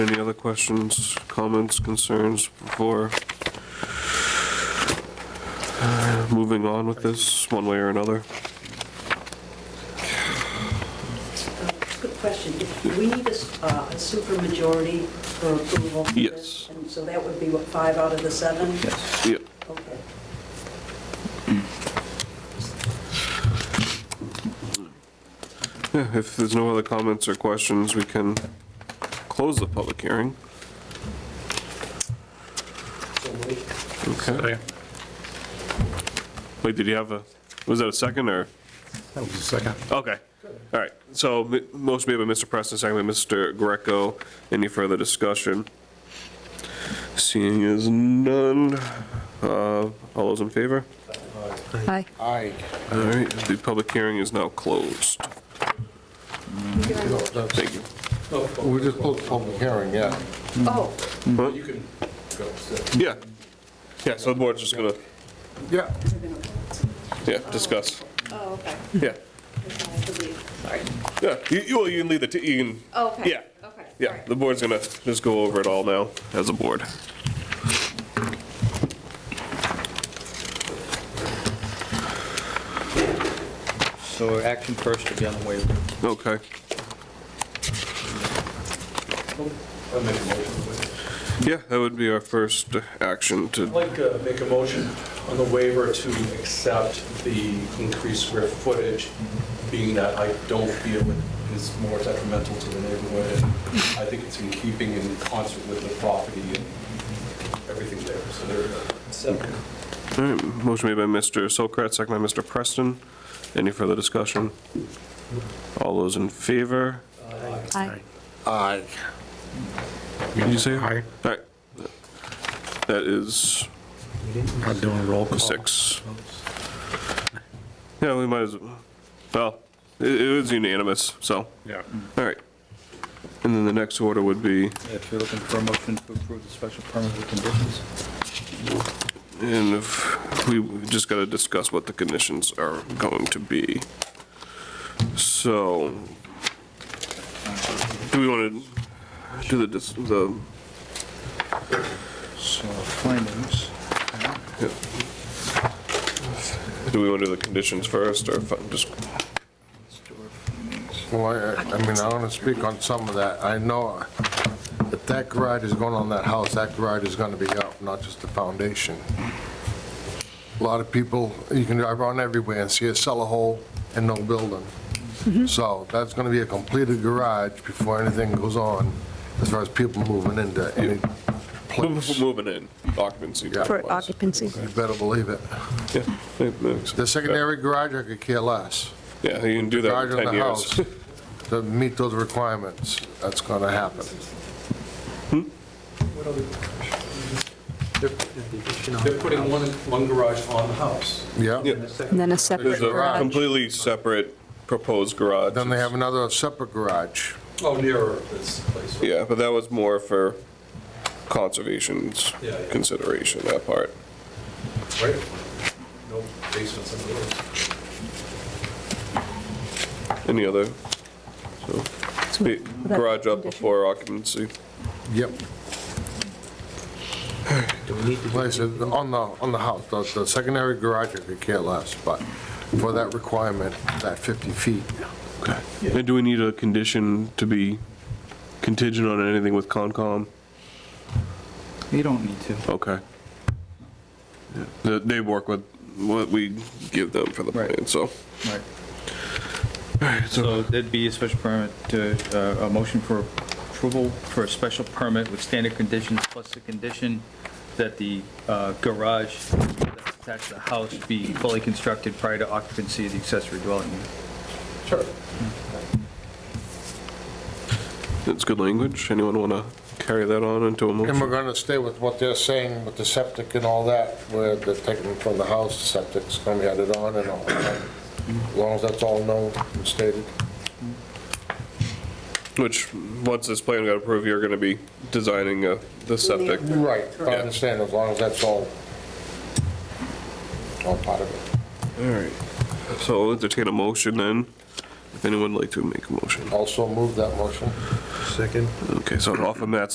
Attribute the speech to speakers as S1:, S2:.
S1: Any other questions, comments, concerns before uh, moving on with this, one way or another?
S2: Uh, Good question. Do we need a s- uh, a supermajority for approval? for this?
S1: Yes.
S2: And so that would be, what, five out of the seven?
S3: Yes.
S1: Yep.
S2: Okay.
S1: Yeah, If there's no other comments or questions, we can close the public hearing. Okay. Wait, did you have a, was that a second or?
S4: That was the second.
S1: Okay, all right. So m- motion made by Mr. Preston, second by Mr. Greco. Any further discussion? Seeing as none, uh, all those in favor?
S5: Aye.
S4: Aye.
S1: All right, the public hearing is now closed. Thank you.
S4: We just closed the public hearing, yeah.
S1: Hmm.
S2: Oh,
S1: You can go. Yeah, yeah, so the board's just gonna,
S4: Yeah.
S1: yeah, discuss.
S6: Oh, okay.
S1: Yeah,
S6: That's how I believe. Sorry.
S1: yeah, you, you, well, you can leave the, t- you can,
S6: Okay.
S1: Yeah.
S6: Okay. all
S1: yeah,
S6: right.
S1: the board's gonna just go over it all now as a board.
S3: So action first would be on the waiver.
S1: Okay.
S7: I'll make a motion.
S1: Yeah, that would be our first action
S7: I'd
S1: to,
S7: like to make a motion on the waiver to accept the increased square footage, being that I don't feel it is more detrimental to the neighborhood, and I think it's in keeping in concert with the property and everything there, so there. Second.
S1: all right, motion made by Mr. Sokrat, second by Mr. Preston. Any further discussion? All those in favor?
S5: Aye.
S4: Aye.
S1: Did you say?
S4: Aye.
S1: All right. That is
S4: I'm doing roll call.
S1: six. Yeah, we might as, well, it, it was unanimous, so,
S4: Yeah.
S1: all right. And then the next order would be,
S3: If you're looking for a motion to approve the special permit with conditions.
S1: and if, we we just gotta discuss what the conditions are going to be. So, do we wanna do the, dis- the,
S3: So findings.
S1: do we wanna do the conditions first, or if I'm just,
S3: Let's do our findings.
S4: Well, I, I mean, I want to speak on some of that. I know if that garage is going on that house, that garage is going to be up, not just the foundation. A lot of people, you can drive around everywhere and see a cellar hole and no building. So that's going to be a completed garage before anything goes on, as far as people moving into any place.
S1: moving in, occupancy.
S4: Yeah.
S5: For
S1: wise.
S5: occupancy.
S4: You better believe it.
S1: Yeah, that makes-
S4: The secondary garage, I could care less.
S1: Yeah, you can do that
S4: Garage
S1: in
S4: on
S1: 10
S4: the
S1: years.
S4: house to meet those requirements, that's going to happen.
S7: They're putting one, one garage on the house.
S4: Yeah?
S1: Yeah.
S5: And then a separate
S1: There's a
S5: garage.
S1: completely separate proposed garage.
S4: Then they have another separate garage.
S7: Oh, nearer this place.
S1: Yeah, but that was more for conservation's
S7: Yeah, yeah.
S1: consideration, that part.
S7: Right? No basements in the woods.
S1: Any other? So,
S5: So
S1: the
S5: would that be
S1: garage up
S5: condition?
S1: before occupancy.
S4: Yep. Like I said, on the, on the house, the, the secondary garage, I could care less, but for that requirement, that 50 feet.
S1: Okay. And do we need a condition to be contingent on anything with Concom?
S3: You don't need to.
S1: Okay. Yeah, They they work with what we give them for the
S3: Right.
S1: plan, so.
S3: Right. So that'd be a special permit to, uh, a motion for approval for a special permit with standard conditions plus the condition that the uh, garage that's attached to the house be fully constructed prior to occupancy of the accessory dwelling unit.
S7: Sure.
S1: That's good language. Anyone want to carry that on into a
S4: And we're
S1: motion?
S4: gonna stay with what they're saying with the septic and all that, where they're taking from the house, the septic's gonna be added on and all that. As long as that's all known and stated.
S1: Which, once this plan got approved, you're going to be designing uh, the septic.
S4: Right, I understand, as long as that's all, all part of it.
S1: All right. So I'll entertain a motion then. If anyone would like to make a motion.
S4: Also move that motion.
S1: Okay, so off of Matt's